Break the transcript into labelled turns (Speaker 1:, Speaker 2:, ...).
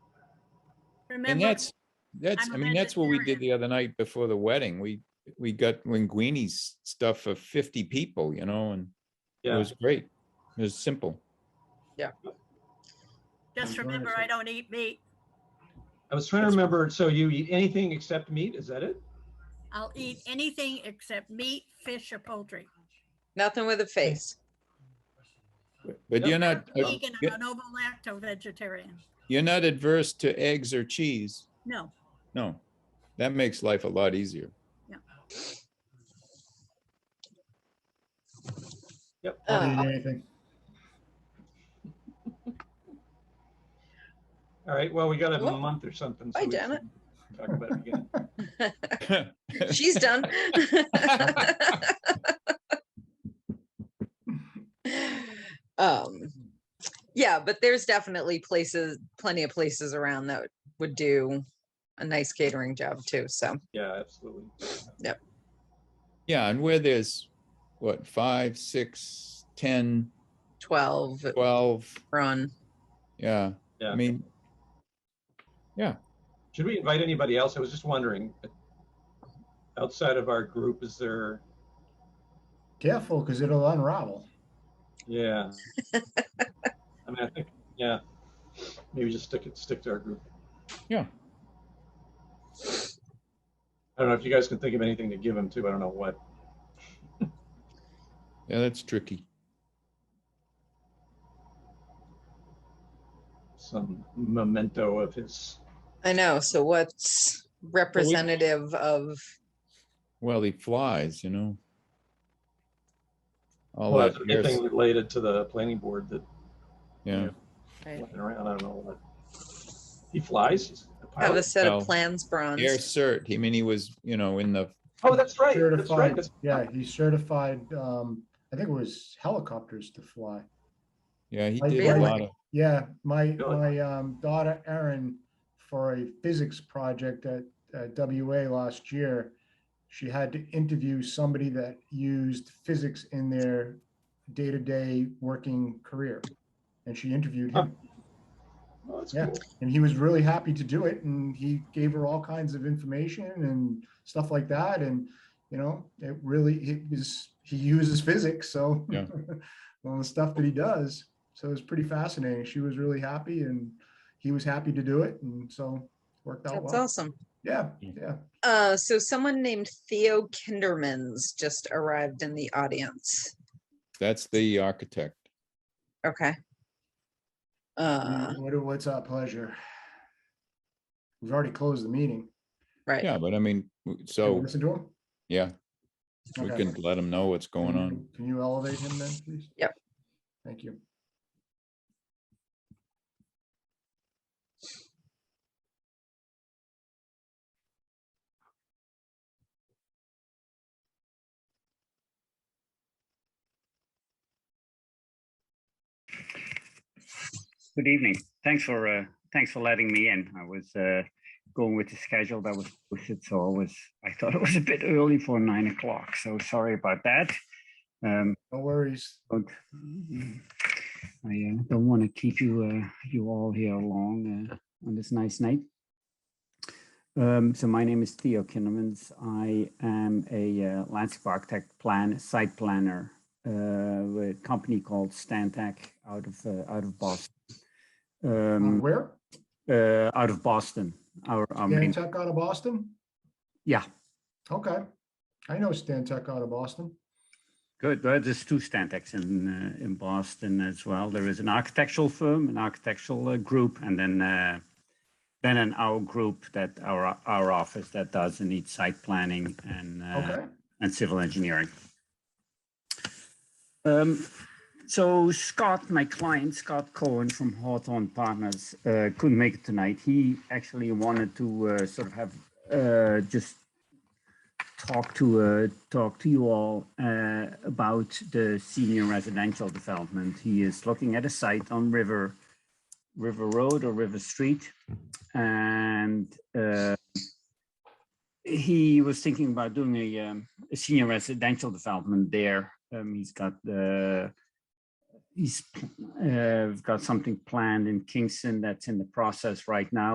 Speaker 1: And
Speaker 2: Remember,
Speaker 1: that's, that's,
Speaker 2: I'm
Speaker 1: I
Speaker 2: a
Speaker 1: mean, that's what we did
Speaker 2: vegetarian.
Speaker 1: the other night before the wedding. We, we got linguini's stuff for fifty people, you know, and it
Speaker 3: Yeah,
Speaker 1: was great. It was simple.
Speaker 2: just
Speaker 3: I'm
Speaker 2: remember,
Speaker 3: sorry.
Speaker 2: I don't eat meat.
Speaker 3: I was trying to remember, so you eat anything except meat, is that it?
Speaker 2: I'll eat anything except meat, fish, or poultry.
Speaker 4: Nothing with a face.
Speaker 1: But- But you're
Speaker 2: I'm
Speaker 1: not, uh,
Speaker 2: Vegan,
Speaker 1: you're-
Speaker 2: I'm a novo lacto vegetarian.
Speaker 1: you're not adverse to eggs or cheese.
Speaker 2: No,
Speaker 1: No, that makes life a lot easier.
Speaker 4: Uh,
Speaker 5: Don't eat anything.
Speaker 3: All right, well, we gotta have a
Speaker 4: Well,
Speaker 3: month or something. so
Speaker 4: bye,
Speaker 3: we
Speaker 4: Janet.
Speaker 3: can Talk about it again.
Speaker 4: She's done. um, yeah, but there's definitely places, plenty of places around that would do a nice catering job too. So
Speaker 3: Yeah, absolutely.
Speaker 1: Yeah, and where there's, what, five, six, ten,
Speaker 4: 12
Speaker 1: twelve,
Speaker 4: run.
Speaker 1: yeah,
Speaker 3: Yeah.
Speaker 1: I mean,
Speaker 3: Should we invite anybody else? I was just wondering, outside of our group, is there,
Speaker 5: Careful, because it'll unravel.
Speaker 3: yeah. I mean, I think, yeah, maybe just stick it, stick to our group.
Speaker 1: Yeah.
Speaker 3: I don't know if you guys can think of anything to give them to, I don't know what.
Speaker 1: yeah, that's tricky.
Speaker 3: some memento of his.
Speaker 4: I know. So what's representative of
Speaker 1: Well, he flies, you know. All
Speaker 3: Well,
Speaker 1: that
Speaker 3: that's
Speaker 1: years,
Speaker 3: anything related to the planning board that
Speaker 1: yeah.
Speaker 4: right,
Speaker 3: went around, I don't know what. He flies? He's a
Speaker 4: have a
Speaker 3: pilot?
Speaker 4: set
Speaker 1: well,
Speaker 4: of plans, bronze?
Speaker 1: Air cert. I mean, he was, you know, in the
Speaker 3: Oh, that's right, that's right.
Speaker 5: Certified,
Speaker 3: that's-
Speaker 5: yeah, he certified, um, I think it was helicopters to fly.
Speaker 1: yeah. He
Speaker 5: I
Speaker 1: did a
Speaker 4: really-
Speaker 1: lot of
Speaker 5: Yeah, my,
Speaker 3: Really?
Speaker 5: my um, daughter Erin, for a physics project at uh, WA last year, she had to interview somebody that used physics in their day-to-day working career. And she interviewed him,
Speaker 3: Oh, that's
Speaker 5: Yeah.
Speaker 3: cool.
Speaker 5: and he was really happy to do it, and he gave her all kinds of information and stuff like that, and, you know, it really, it was, he uses physics, so.
Speaker 1: Yeah.
Speaker 5: All the stuff that he does, so it was pretty fascinating. She was really happy, and he was happy to do it, and so worked out
Speaker 4: That's
Speaker 5: well.
Speaker 4: awesome.
Speaker 5: Yeah,
Speaker 1: Yeah.
Speaker 5: yeah.
Speaker 4: Uh, so someone named Theo Kindermans just arrived in the audience.
Speaker 1: that's the architect.
Speaker 4: Okay. Uh,
Speaker 5: What, a- what's our pleasure? We've already closed the meeting.
Speaker 4: right.
Speaker 1: Yeah, but I mean, w-
Speaker 5: Can we
Speaker 1: so
Speaker 5: Listen to him?
Speaker 1: yeah, we
Speaker 5: Okay.
Speaker 1: can let him know what's going
Speaker 5: Can you-
Speaker 1: on.
Speaker 5: Can you elevate him then, please?
Speaker 4: Yep.
Speaker 5: Thank you.
Speaker 6: Good evening. Thanks for uh, thanks for letting me in. I was uh, going with the schedule that was posted, so I was I thought it was a bit early for nine o'clock. So sorry about that. Um,
Speaker 5: No worries.
Speaker 6: but I uh, don't want to keep you uh, you all here long uh, on this nice night. Um, so my name is Theo Kinnemans. I am a uh, landscape architect, plan site planner uh, with a company called Stantec out of uh, out of Boston.
Speaker 5: Um,
Speaker 6: Um,
Speaker 5: Where?
Speaker 6: uh, out of Boston. Our, our main,
Speaker 5: Stantec out of Boston?
Speaker 6: yeah,
Speaker 5: Okay. I know Stantec out of Boston.
Speaker 6: good. Well, There's two Stantecs in uh, in Boston as well. There is an architectural firm, an architectural uh, group, and then uh, then an our group that our our office that does and needs site planning and uh,
Speaker 5: Okay.
Speaker 6: and civil engineering. Um, so Scott, my client, Scott Cohen from Hawthorne Partners, uh, couldn't make it tonight. He actually wanted to uh, sort of have uh, just talk to uh, talk to you all uh, about the senior residential development. He is looking at a site on River River Road or River Street, and uh, he was thinking about doing a, um, a senior residential development there. Um, he's got the he's uh, got something planned in Kingston that's in the process right now.